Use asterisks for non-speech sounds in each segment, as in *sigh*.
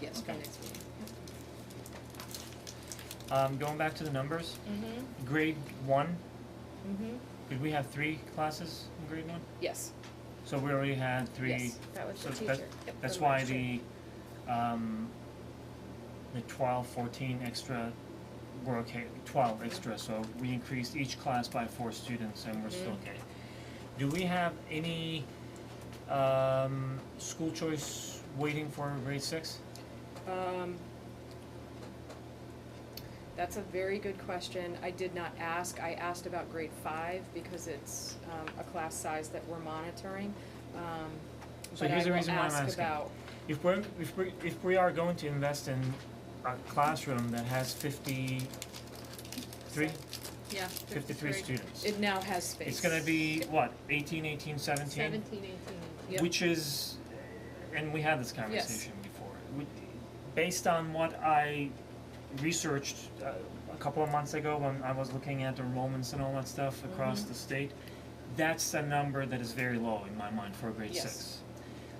Yes, for Okay. next meeting. Um, going back to the numbers, Mm-hmm, grade one, mm-hmm, did we have three classes in grade one? yes, So we already had three, yes, that was so the that's, teacher. Yep, that's from why last year. the, um, the twelve, fourteen extra were okay, twelve extra, so we increased each class by four students and we're still okay. Do we have any, um, school choice waiting for grade six? Um, that's a very good question. I did not ask. I asked about grade five because it's, um, a class size that we're monitoring. Um, So but I here's the will reason why I'm ask asking. about, If we're, if we, if we are going to invest in a classroom that has fifty-three, Yeah, fifty-three students, it now has space. it's gonna be, what, eighteen, eighteen, seventeen? Seventeen, eighteen. Yep. Which is, and we had this conversation before, we, based on what I researched uh, a couple of months ago when I was looking at enrollments and all that stuff Mm-hmm. across the state, that's a number that is very low in my mind for grade Yes. six.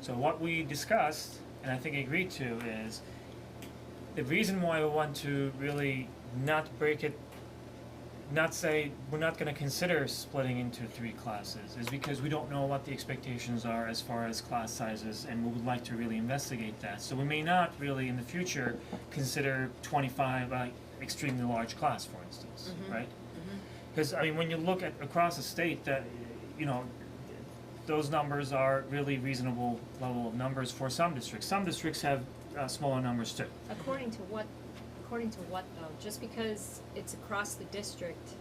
So what we discussed, and I think agreed to, is the reason why we want to really not break it not say we're not gonna consider splitting into three classes is because we don't know what the expectations are as far as class sizes and we would like to really investigate that. So we may not really in the future consider twenty five uh extremely large class, for instance, Mhm. right? Cause I mean, when you look at across the state that, you know, those numbers are really reasonable level of numbers for some districts. Some districts have uh smaller numbers too. According to what, according to what though? Just because it's across the district,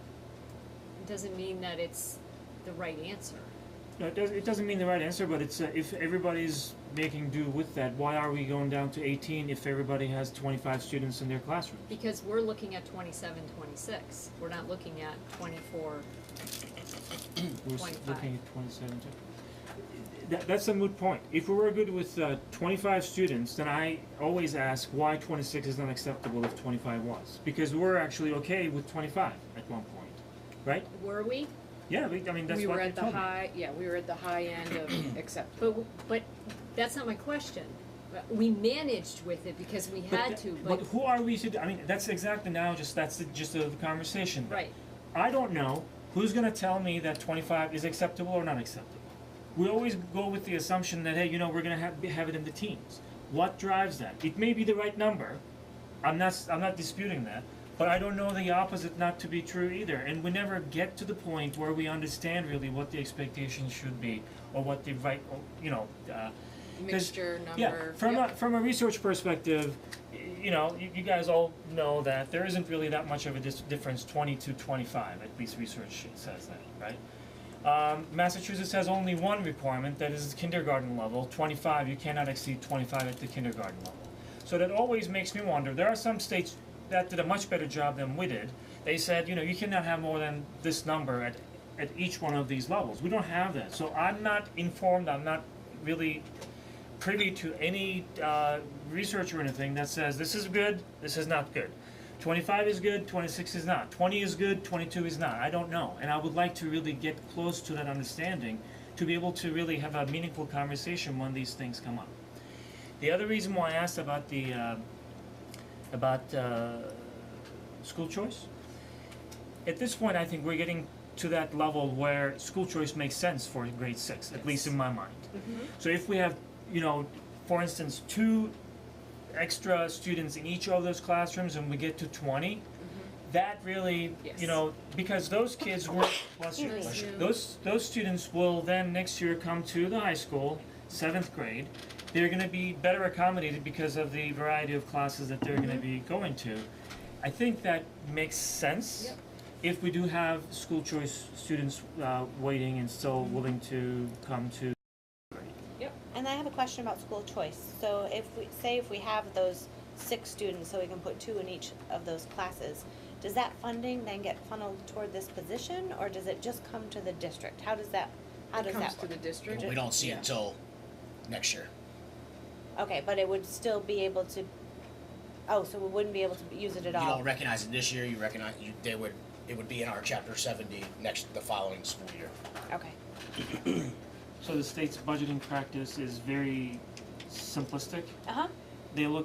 doesn't mean that it's the right answer. No, it does it doesn't mean the right answer, but it's, uh, if everybody's making do with that, why are we going down to eighteen if everybody has twenty-five students in their classroom? Because we're looking at twenty-seven, twenty-six, we're not looking at twenty-four. We're s- 25. looking at twenty-seven too. That, that's a moot point. If we were good with, uh, twenty-five students, then I always ask why twenty-six is not acceptable if twenty-five was. Because we're actually okay with twenty-five at one point, right? Were we? Yeah, we, I mean, that's We what were they at the told me. high, yeah, we were at the high end *clears throat* of acceptable. But, w- but that's not my question. But We managed with it because we But had th- to, But but, who are we to, d- I mean, that's exactly now, just, that's the gist of the conversation. then. right, I don't know who's gonna tell me that twenty-five is acceptable or not acceptable. We always go with the assumption that, hey, you know, we're gonna have, have it in the teens. What drives that? It may be the right number, I'm not, s- I'm not disputing that, but I don't know the opposite not to be true either, and we never get to the point where we understand really what the expectations should be, or what the right, or, you know, uh, 'cause- Mixture, number, yeah, from a yep. from a research perspective, y- you know, you, you guys all know that there isn't really that much of a dis- difference twenty to twenty five. At least research says that, right? Um, Massachusetts has only one requirement that is kindergarten level. Twenty five, you cannot exceed twenty five at the kindergarten level. So that always makes me wonder. There are some states that did a much better job than we did. They said, you know, you cannot have more than this number at at each one of these levels. We don't have that. So I'm not informed. I'm not really privy to any uh, research or anything that says this is good, this is not good. 25 is good, 26 is not. 20 is good, 22 is not. I don't know. And I would like to really get close to that understanding to be able to really have a meaningful conversation when these things come up. The other reason why I asked about the uh, about uh, school choice at this point, I think we're getting to that level where school choice makes sense for grade six, at least in my mind. So if we have, you know, for instance, two extra students in each of those classrooms and we get to 20 that really, you Yes. know, because those kids were, bless you, Bless you. those, those students will then next year come to the high school, seventh grade. They're gonna be better accommodated because of the variety of classes that they're gonna be going to. I think that makes sense. Yep. If we do have school choice students, uh, waiting and still willing to come to grade. And I have a question about school choice. So if we, say if we have those six students, so we can put two in each of those classes, does that funding then get funneled toward this position, or does it just come to the district? How does that, how It does comes that to work? the district. But we don't see Yeah. it till next year. Okay, but it would still be able to, oh, so we wouldn't be able to use it You at all? don't recognize it this year, you recognize, you, they would, it would be in our chapter seventy next, the following school year. Okay, So the state's budgeting practice is very simplistic. uh-huh. They look